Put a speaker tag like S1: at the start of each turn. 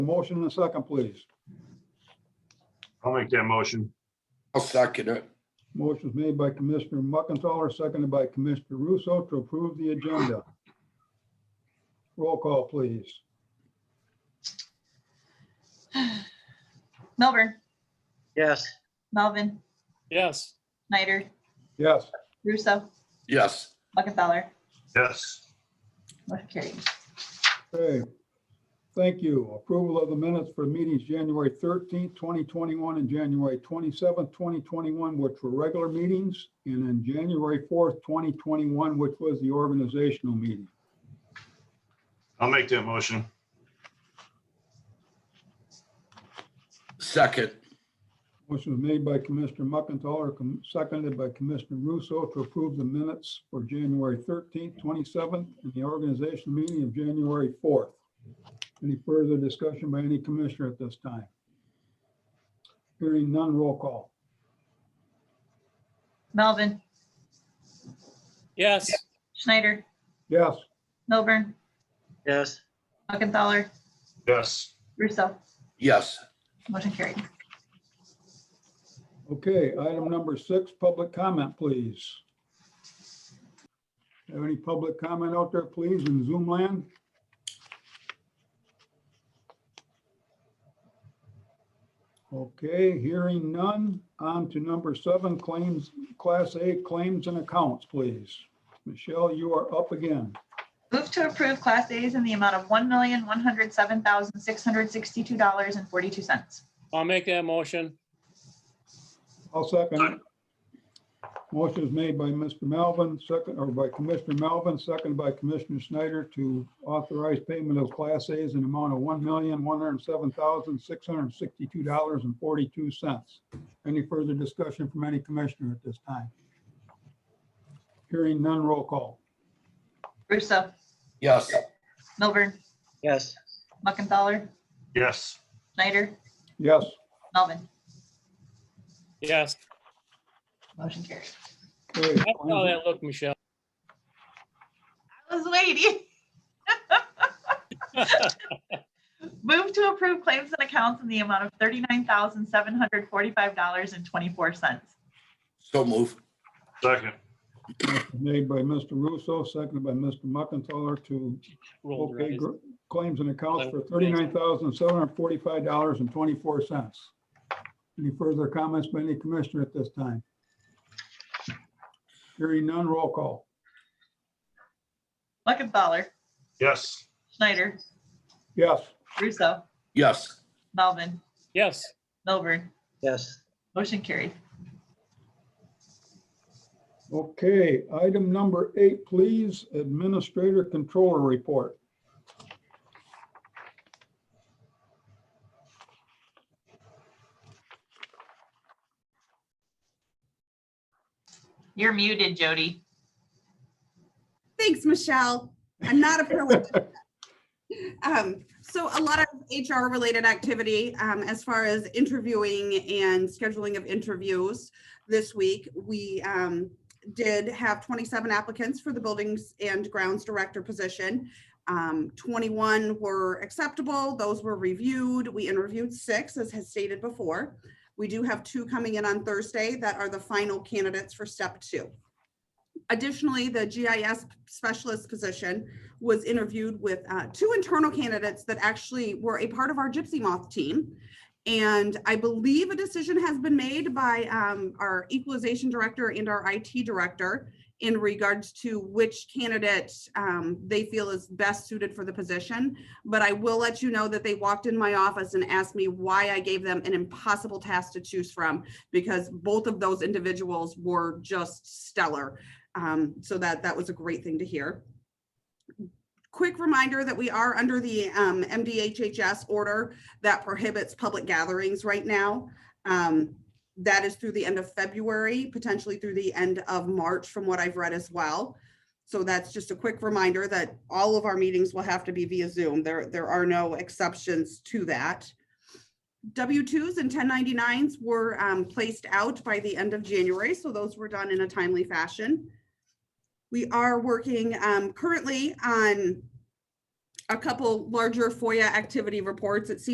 S1: Motion and a second, please.
S2: I'll make that motion.
S3: I'll second it.
S1: Motion's made by Commissioner Muckenthaler, seconded by Commissioner Russo to approve the agenda. Roll call, please.
S4: Milburn,
S5: Yes.
S4: Melvin,
S5: Yes.
S4: Snyder,
S1: Yes,
S4: Russo,
S3: Yes,
S4: Muckenthaler.
S2: Yes,
S4: Motion carried.
S1: okay. Thank you. Approval of the minutes for meetings January thirteenth, twenty twenty-one and January twenty-seventh, twenty twenty-one, which were regular meetings, and then January fourth, twenty twenty-one, which was the organizational meeting.
S2: I'll make that motion.
S3: second.
S1: Motion was made by Commissioner Muckenthaler, com- seconded by Commissioner Russo to approve the minutes for January 13th, 27th, and the organization meeting of January 4th. Any further discussion by any commissioner at this time? Hearing none, roll call.
S4: Melvin,
S5: Yes.
S4: Schneider,
S1: Yes,
S4: Milburn,
S5: Yes.
S4: Muckenthaler,
S2: Yes,
S4: Russo.
S3: Yes,
S4: Motion carried.
S1: okay, item number six, public comment, please. Have any public comment out there, please, in Zoom land? Okay, hearing none. On to number seven, claims, Class A claims and accounts, please. Michelle, you are up again.
S4: Move to approve Class As in the amount of one million, one hundred seven thousand, six hundred sixty-two dollars and forty-two cents.
S5: I'll make that motion.
S1: I'll second it. Motion is made by Mr. Melvin, second, or by Commissioner Melvin, second by Commissioner Snyder to authorize payment of Class A's in amount of one million, one hundred and seven thousand, six hundred and sixty-two dollars and forty-two cents. Any further discussion from any commissioner at this time? Hearing none, roll call.
S4: Russo,
S3: yes,
S4: Milburn,
S5: Yes.
S4: Muckenthaler,
S2: yes,
S4: Schneider,
S1: Yes,
S4: Melvin.
S5: Yes.
S4: Motion carried.
S1: okay.
S5: That's how that looked, Michelle.
S4: I was waiting. Move to approve claims and accounts in the amount of thirty-nine thousand, seven hundred forty-five dollars and twenty-four cents.
S3: so move.
S2: second,
S1: Made by Mr. Russo, seconded by Mr. Muckenthaler to
S5: Rolled her
S1: Okay,
S5: eyes.
S1: gr- claims and accounts for
S5: Eleven
S1: thirty-nine thousand, seven hundred and forty-five dollars and twenty-four cents. Any further comments by any commissioner at this time? Hearing none, roll call.
S4: Muckenthaler,
S2: yes,
S4: Schneider,
S1: Yes,
S4: Russo,
S3: Yes,
S4: Melvin,
S5: Yes.
S4: Milburn.
S5: Yes.
S4: Motion carried.
S1: okay, item number eight, please, Administrator Controller Report.
S4: You're muted, Jody.
S6: Thanks, Michelle. I'm not a pro. at that. Um, so a lot of HR related activity, um, as far as interviewing and scheduling of interviews. This week, we, um, did have twenty-seven applicants for the buildings and grounds director position. Um, twenty-one were acceptable. Those were reviewed. We interviewed six, as has stated before. We do have two coming in on Thursday that are the final candidates for step two. Additionally, the GIS specialist position was interviewed with uh, two internal candidates that actually were a part of our Gypsy Moth team. And I believe a decision has been made by um, our equalization director and our IT director in regards to which candidate um, they feel is best suited for the position. But I will let you know that they walked in my office and asked me why I gave them an impossible task to choose from because both of those individuals were just stellar. Um, so that that was a great thing to hear. Quick reminder that we are under the um, MDHHS order that prohibits public gatherings right now. Um, that is through the end of February, potentially through the end of March, from what I've read as well. So that's just a quick reminder that all of our meetings will have to be via Zoom. There, there are no exceptions to that. W-2s and 1099s were um, placed out by the end of January, so those were done in a timely fashion. We are working um, currently on a couple larger FOIA activity reports. It seems